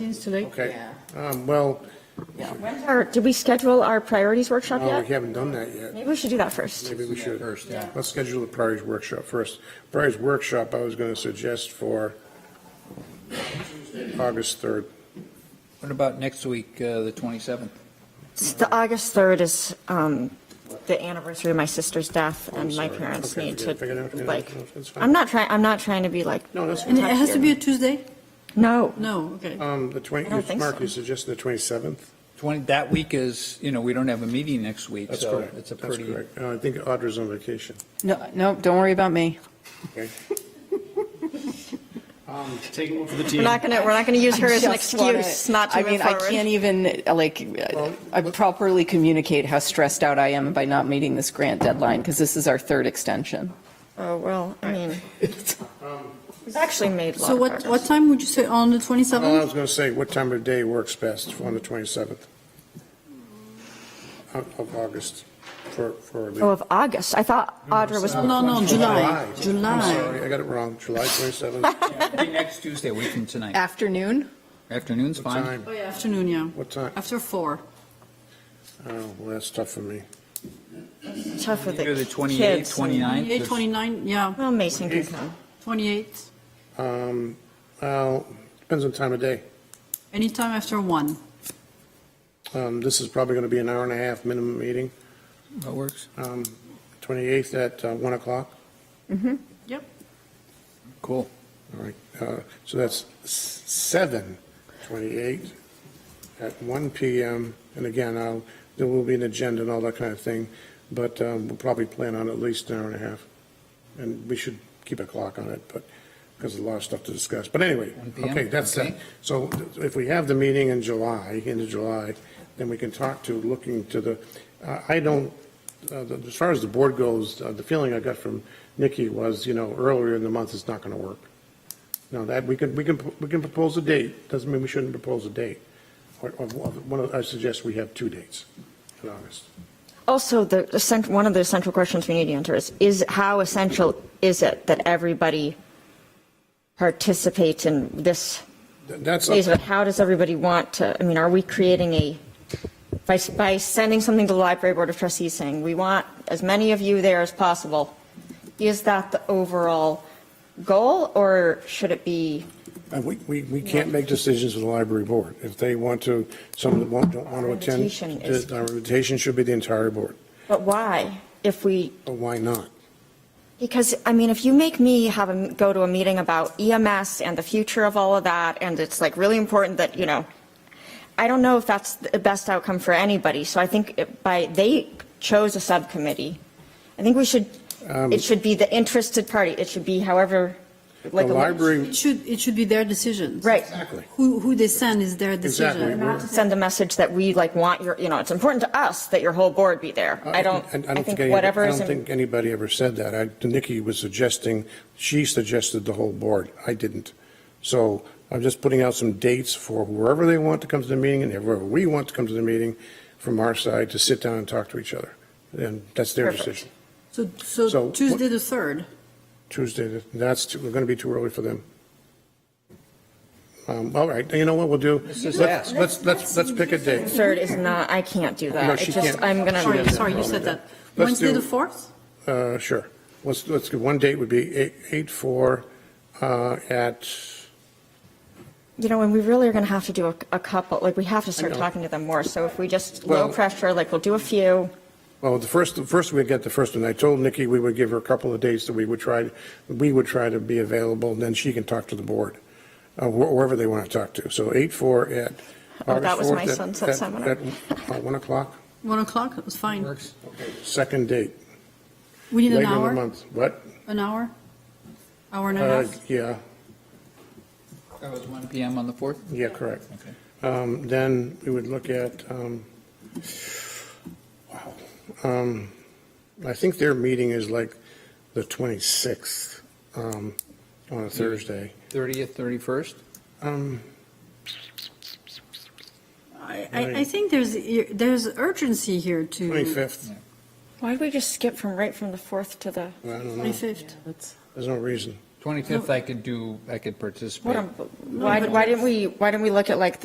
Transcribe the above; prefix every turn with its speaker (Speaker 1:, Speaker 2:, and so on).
Speaker 1: Meetings tonight?
Speaker 2: Okay.
Speaker 3: Yeah.
Speaker 2: Um, well,
Speaker 4: Or did we schedule our priorities workshop
Speaker 2: no,
Speaker 4: yet?
Speaker 2: we haven't done that yet.
Speaker 4: Maybe we should do that first.
Speaker 2: Maybe we should.
Speaker 5: First, yeah.
Speaker 2: Let's schedule the priorities workshop first. Priorities workshop, I was gonna suggest for August third.
Speaker 5: What about next week, uh, the 27th?
Speaker 4: The August 3rd is um, the anniversary of my sister's death,
Speaker 2: Oh,
Speaker 4: and my parents need to, like, I'm not trying, I'm not trying to be like,
Speaker 2: No, that's,
Speaker 1: And it has to be a Tuesday?
Speaker 4: no,
Speaker 1: No, okay.
Speaker 2: um, the twenty,
Speaker 4: I don't think
Speaker 2: Mark,
Speaker 4: so.
Speaker 2: you suggested the twenty-seventh?
Speaker 5: 20, that week is, you know, we don't have a meeting next week,
Speaker 2: That's
Speaker 5: so
Speaker 2: correct.
Speaker 5: it's a
Speaker 2: That's
Speaker 5: pretty,
Speaker 2: correct. Uh, I think Audra's on vacation,
Speaker 3: No, no, don't worry about me.
Speaker 2: okay?
Speaker 6: Um, Taking one for the
Speaker 4: we're
Speaker 6: team.
Speaker 4: not going to, we're not going to use her as an
Speaker 3: Just wanna-
Speaker 4: excuse not to
Speaker 3: I
Speaker 4: move
Speaker 3: mean, I can't
Speaker 4: forward.
Speaker 3: even, uh, like, uh,
Speaker 2: Well,
Speaker 3: I
Speaker 2: what-
Speaker 3: properly communicate how stressed out I am by not meeting this grant deadline, because this is our third extension.
Speaker 4: Oh, well, I mean, we've actually made a lot
Speaker 1: So
Speaker 4: of
Speaker 1: what,
Speaker 4: progress.
Speaker 1: what time would you say, on the
Speaker 2: Well, I
Speaker 1: 27th?
Speaker 2: was gonna say, what time of day works best on the twenty-seventh? Of, of August, for, for. the-
Speaker 4: Oh, of August, I thought Audra was,
Speaker 1: No, no, no, July,
Speaker 2: I'm
Speaker 1: July.
Speaker 2: sorry, I got it wrong, July 27th.
Speaker 5: Be next Tuesday, a week from tonight.
Speaker 3: Afternoon?
Speaker 5: Afternoon's
Speaker 2: What
Speaker 5: fine.
Speaker 2: time?
Speaker 1: Oh, yeah, afternoon, yeah,
Speaker 2: What time?
Speaker 1: after four.
Speaker 2: Oh, well, that's tough for me.
Speaker 4: tough with the
Speaker 5: Either the
Speaker 4: kids.
Speaker 5: 28th,
Speaker 4: and-
Speaker 5: 29th.
Speaker 1: 28, 29, yeah,
Speaker 4: Well, Mason can come.
Speaker 1: 28,
Speaker 2: Um, well, depends on time of day.
Speaker 1: anytime after one.
Speaker 2: Um, this is probably gonna be an hour and a half minimum meeting,
Speaker 5: That works.
Speaker 2: um, 28th at uh, 1 o'clock.
Speaker 1: Yep.
Speaker 5: Cool.
Speaker 2: All right, uh, so that's s- 7, 28 at 1 PM. And again, I'll, there will be an agenda and all that kind of thing, but, um, we'll probably plan on at least an hour and a half. And we should keep a clock on it, but, because there's a lot of stuff to discuss. But anyway,
Speaker 5: 1 p.m.,
Speaker 2: okay, that's
Speaker 5: okay.
Speaker 2: that. So if we have the meeting in July, into July, then we can talk to, looking to the, I- I don't, uh, the- as far as the board goes, uh, the feeling I got from Nikki was, you know, earlier in the month, it's not going to work. Now, that, we can, we can, we can propose a date, doesn't mean we shouldn't propose a date. Or, or one of, I suggest we have two dates in August.
Speaker 4: Also, the, the cent- one of the central questions we need to answer is, is how essential is it that everybody participates in this
Speaker 2: Th- That's,
Speaker 4: phase of
Speaker 2: up-
Speaker 4: it? How does everybody want to, I mean, are we creating a, by, by sending something to the library board of trustees saying, we want as many of you there as possible, is that the overall goal, or should it be,
Speaker 2: uh, we, we, we can't make decisions with the library board. If they want to, some that won't, don't want to attend,
Speaker 4: Invitation is-
Speaker 2: the- our invitation should be the entire board.
Speaker 4: but why? If we,
Speaker 2: But why not?
Speaker 4: because, I mean, if you make me have a, go to a meeting about EMS and the future of all of that, and it's like really important that, you know, I don't know if that's the best outcome for anybody, so I think it- by, they chose a subcommittee. I think we should,
Speaker 2: Um,
Speaker 4: it should be the interested party, it should be however,
Speaker 2: The
Speaker 4: like. a-
Speaker 2: library,
Speaker 1: It should, it should be their decision.
Speaker 4: Right.
Speaker 2: exactly.
Speaker 1: Who, who they send is their
Speaker 2: Exactly.
Speaker 1: decision.
Speaker 4: Not to send a message that we like want your, you know, it's important to us that your whole board be there.
Speaker 2: Uh,
Speaker 4: I don't, I think
Speaker 2: any-
Speaker 4: whatever is,
Speaker 2: I don't
Speaker 4: in-
Speaker 2: think anybody ever said that. I- Nikki was suggesting, she suggested the whole board. I didn't. So I'm just putting out some dates for whoever they want to come to the meeting and whoever we want to come to the meeting from our side to sit down and talk to each other. And that's their
Speaker 4: Perfect.
Speaker 2: decision.
Speaker 1: So, so
Speaker 2: So
Speaker 1: Tuesday the 3rd.
Speaker 2: Tuesday, that's, too- we're going to be too early for them. Um, All right, you know what we'll do?
Speaker 5: just
Speaker 2: Let's,
Speaker 5: ask.
Speaker 2: let's, let's let's pick a date.
Speaker 4: third is not, I can't do
Speaker 2: No,
Speaker 4: that.
Speaker 2: she
Speaker 4: It's just,
Speaker 2: can't.
Speaker 4: I'm gonna.
Speaker 1: Sorry,
Speaker 2: doesn't
Speaker 1: sorry, you
Speaker 2: have
Speaker 1: said
Speaker 2: that.
Speaker 1: that.
Speaker 2: Let's
Speaker 1: Wednesday
Speaker 2: do-
Speaker 1: the 4th?
Speaker 2: Uh, Sure. Let's, let's, get- one date would be eight eight four uh at,
Speaker 4: You know, and we really are going to have to do a, a couple, like, we have to start
Speaker 2: know.
Speaker 4: talking to them more. So if we just low
Speaker 2: Well-
Speaker 4: pressure, like, we'll do a few.
Speaker 2: well, the first, the first we'd get the first one. I told Nikki we would give her a couple of dates that we would try, we would try to be available, and then she can talk to the board, uh, wh- whoever they want to talk to. So eight four at
Speaker 4: Oh, that
Speaker 2: August
Speaker 4: was my
Speaker 2: 4th at-
Speaker 4: son's at
Speaker 2: at-
Speaker 4: seminar.
Speaker 2: at, uh, One o'clock,
Speaker 1: 1 o'clock, it's fine.
Speaker 5: Works.
Speaker 2: second date,
Speaker 1: We need an
Speaker 2: later in the
Speaker 1: hour,
Speaker 2: month. What?
Speaker 1: an hour? Hour and a
Speaker 2: Uh,
Speaker 1: half?
Speaker 2: Yeah,
Speaker 5: That was 1 PM on the 4th?
Speaker 2: yeah, correct.
Speaker 5: Okay.
Speaker 2: Um, Then we would look at, um, wow, um, I think their meeting is like the 26th um, on a Thursday.
Speaker 5: 30th, 31st?
Speaker 2: Um,
Speaker 1: I, I I think there's, there's urgency here to.
Speaker 2: 25th,
Speaker 4: Why did we just skip from, right from the 4th to the?
Speaker 2: I don't know,
Speaker 1: 25th.
Speaker 2: there's no reason.
Speaker 5: 25th, I could do, I could participate.
Speaker 4: What, I'm- why, why didn't we, why didn't we look at like